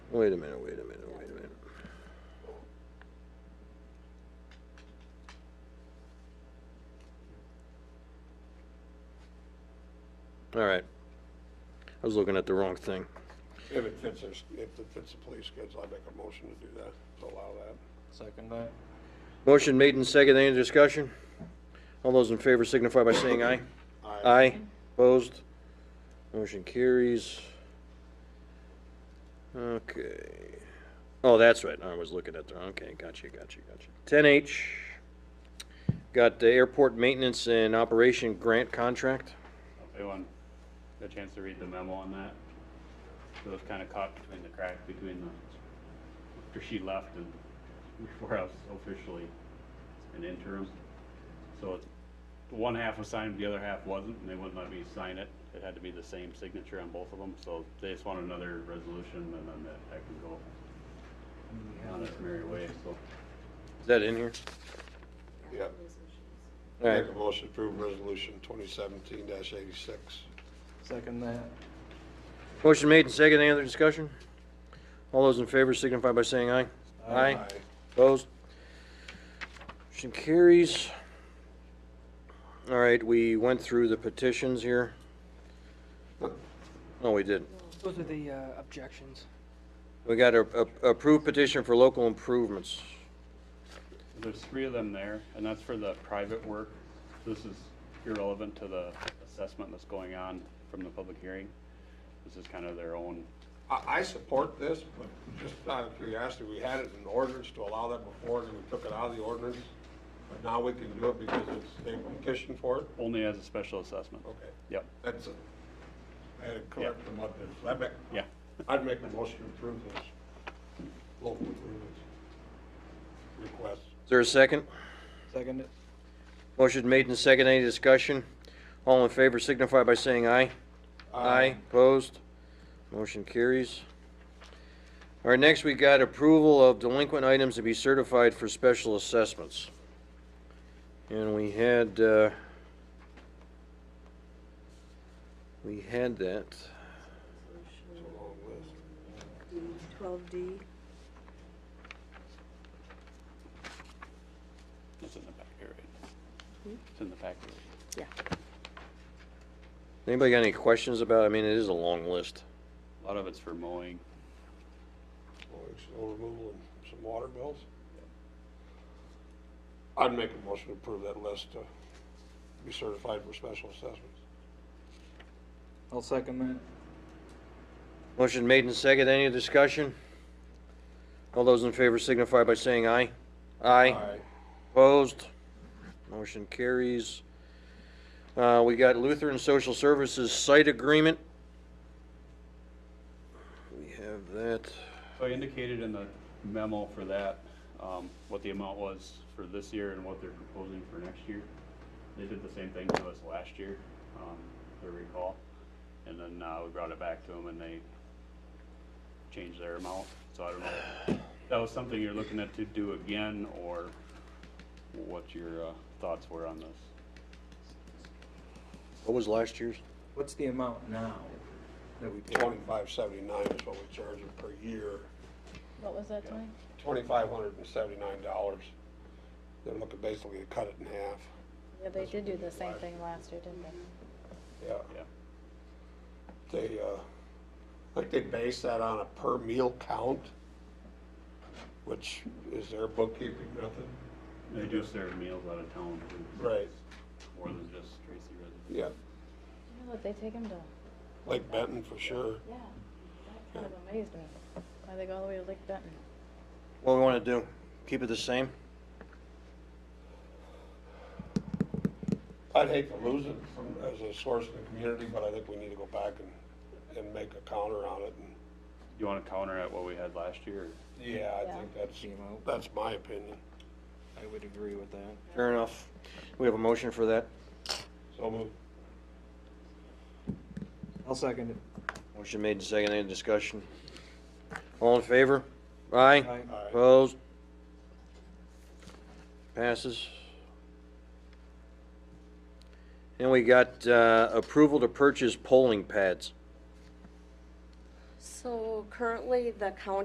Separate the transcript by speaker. Speaker 1: Wait a minute, wait a minute, wait a minute. All right. I was looking at the wrong thing.
Speaker 2: If it fits, our s- if it fits the police kids, I'd make a motion to do that, to allow that.
Speaker 3: Second that.
Speaker 1: Motion made and second. Any discussion? All those in favor signify by saying aye. Aye. Opposed? Motion carries. Okay. Oh, that's right. I was looking at the, okay, gotcha, gotcha, gotcha. Ten H. Got the airport maintenance and operation grant contract.
Speaker 4: Everyone, a chance to read the memo on that? It was kind of caught between the crack between the, after she left and before I was officially an interim. So it- the one half was signed, the other half wasn't, and they wouldn't let me sign it. It had to be the same signature on both of them, so they just want another resolution and then that I can go on its merry way, so.
Speaker 1: Is that in here?
Speaker 2: Yeah,
Speaker 1: All right.
Speaker 2: make a motion to approve resolution twenty seventeen eighty-six.
Speaker 3: Second that.
Speaker 1: Motion made and second. Any other discussion? All those in favor signify by saying aye. Aye. Opposed? Motion carries. All right, we went through the petitions here. No, we didn't.
Speaker 5: Those are the uh, objections.
Speaker 1: We got a a- approved petition for local improvements.
Speaker 4: There's three of them there, and that's for the private work. This is irrelevant to the assessment that's going on from the public hearing. This is kind of their own,
Speaker 2: I, I support this, but just out of curiosity, we had it in ordinance to allow that before, and then we took it out of the ordinance. But now we can do it because it's, they petitioned for it,
Speaker 4: only as a special assessment.
Speaker 2: okay,
Speaker 4: Yep,
Speaker 2: that's it. I had to correct them up there, so I'd make,
Speaker 4: yeah.
Speaker 2: I'd make a motion to approve this, local improvements request.
Speaker 1: Is there a second?
Speaker 3: Second it.
Speaker 1: Motion made and second. Any discussion? All in favor signify by saying aye. Opposed? Motion carries. All right, next we got approval of delinquent items to be certified for special assessments. And we had, uh, we had that.
Speaker 2: It's a long list.
Speaker 6: Twelve D,
Speaker 4: It's in the back here, right? It's in the packet.
Speaker 6: yeah.
Speaker 1: Anybody got any questions about, I mean, it is a long list.
Speaker 4: A lot of it's for mowing.
Speaker 2: Mowing, snow removal, and some water bills? I'd make a motion to approve that list to be certified for special assessments.
Speaker 3: I'll second that.
Speaker 1: Motion made and second. Any discussion? All those in favor signify by saying aye. Aye. Opposed? Motion carries. Uh, we got Lutheran Social Services Site Agreement. We have that.
Speaker 4: So I indicated in the memo for that, um, what the amount was for this year and what they're proposing for next year. They did the same thing to us last year, um, if I recall, and then, uh, we brought it back to them and they changed their amount, so I don't know. if That was something you're looking at to do again, or what your, uh, thoughts were on this?
Speaker 1: What was last year's?
Speaker 3: What's the amount now that we pay?
Speaker 2: Twenty-five seventy-nine is what we charge them per year,
Speaker 7: What was that time?
Speaker 2: twenty-five hundred and seventy-nine dollars. They're looking basically to cut it in half.
Speaker 7: Yeah, they did do the same thing last year, didn't they?
Speaker 2: Yeah,
Speaker 4: Yeah,
Speaker 2: they, uh, I think they base that on a per meal count, which is their bookkeeping method.
Speaker 4: they do serve meals out of town, too. so
Speaker 2: Right.
Speaker 4: it's More than just Tracy residents.
Speaker 2: Yeah,
Speaker 7: You know what, they take them to,
Speaker 2: Lake Benton for sure.
Speaker 7: yeah, that kind of amazed me. Why they go all the way to Lake Benton?
Speaker 1: What we wanna do? Keep it the same?
Speaker 2: I'd hate to lose it from, as a source in the community, but I think we need to go back and, and make a counter on it, and,
Speaker 4: You wanna counter at what we had last year, or?
Speaker 2: yeah, I
Speaker 7: Yeah.
Speaker 2: think that's,
Speaker 3: Came out.
Speaker 2: that's my opinion.
Speaker 3: I would agree with that.
Speaker 1: Fair enough. We have a motion for that.
Speaker 2: So move.
Speaker 3: I'll second it.
Speaker 1: Motion made and second. Any discussion? All in favor? Aye.
Speaker 3: Aye.
Speaker 2: Aye.
Speaker 1: Opposed? Passes. And we got uh, approval to purchase polling pads.
Speaker 6: So currently, the county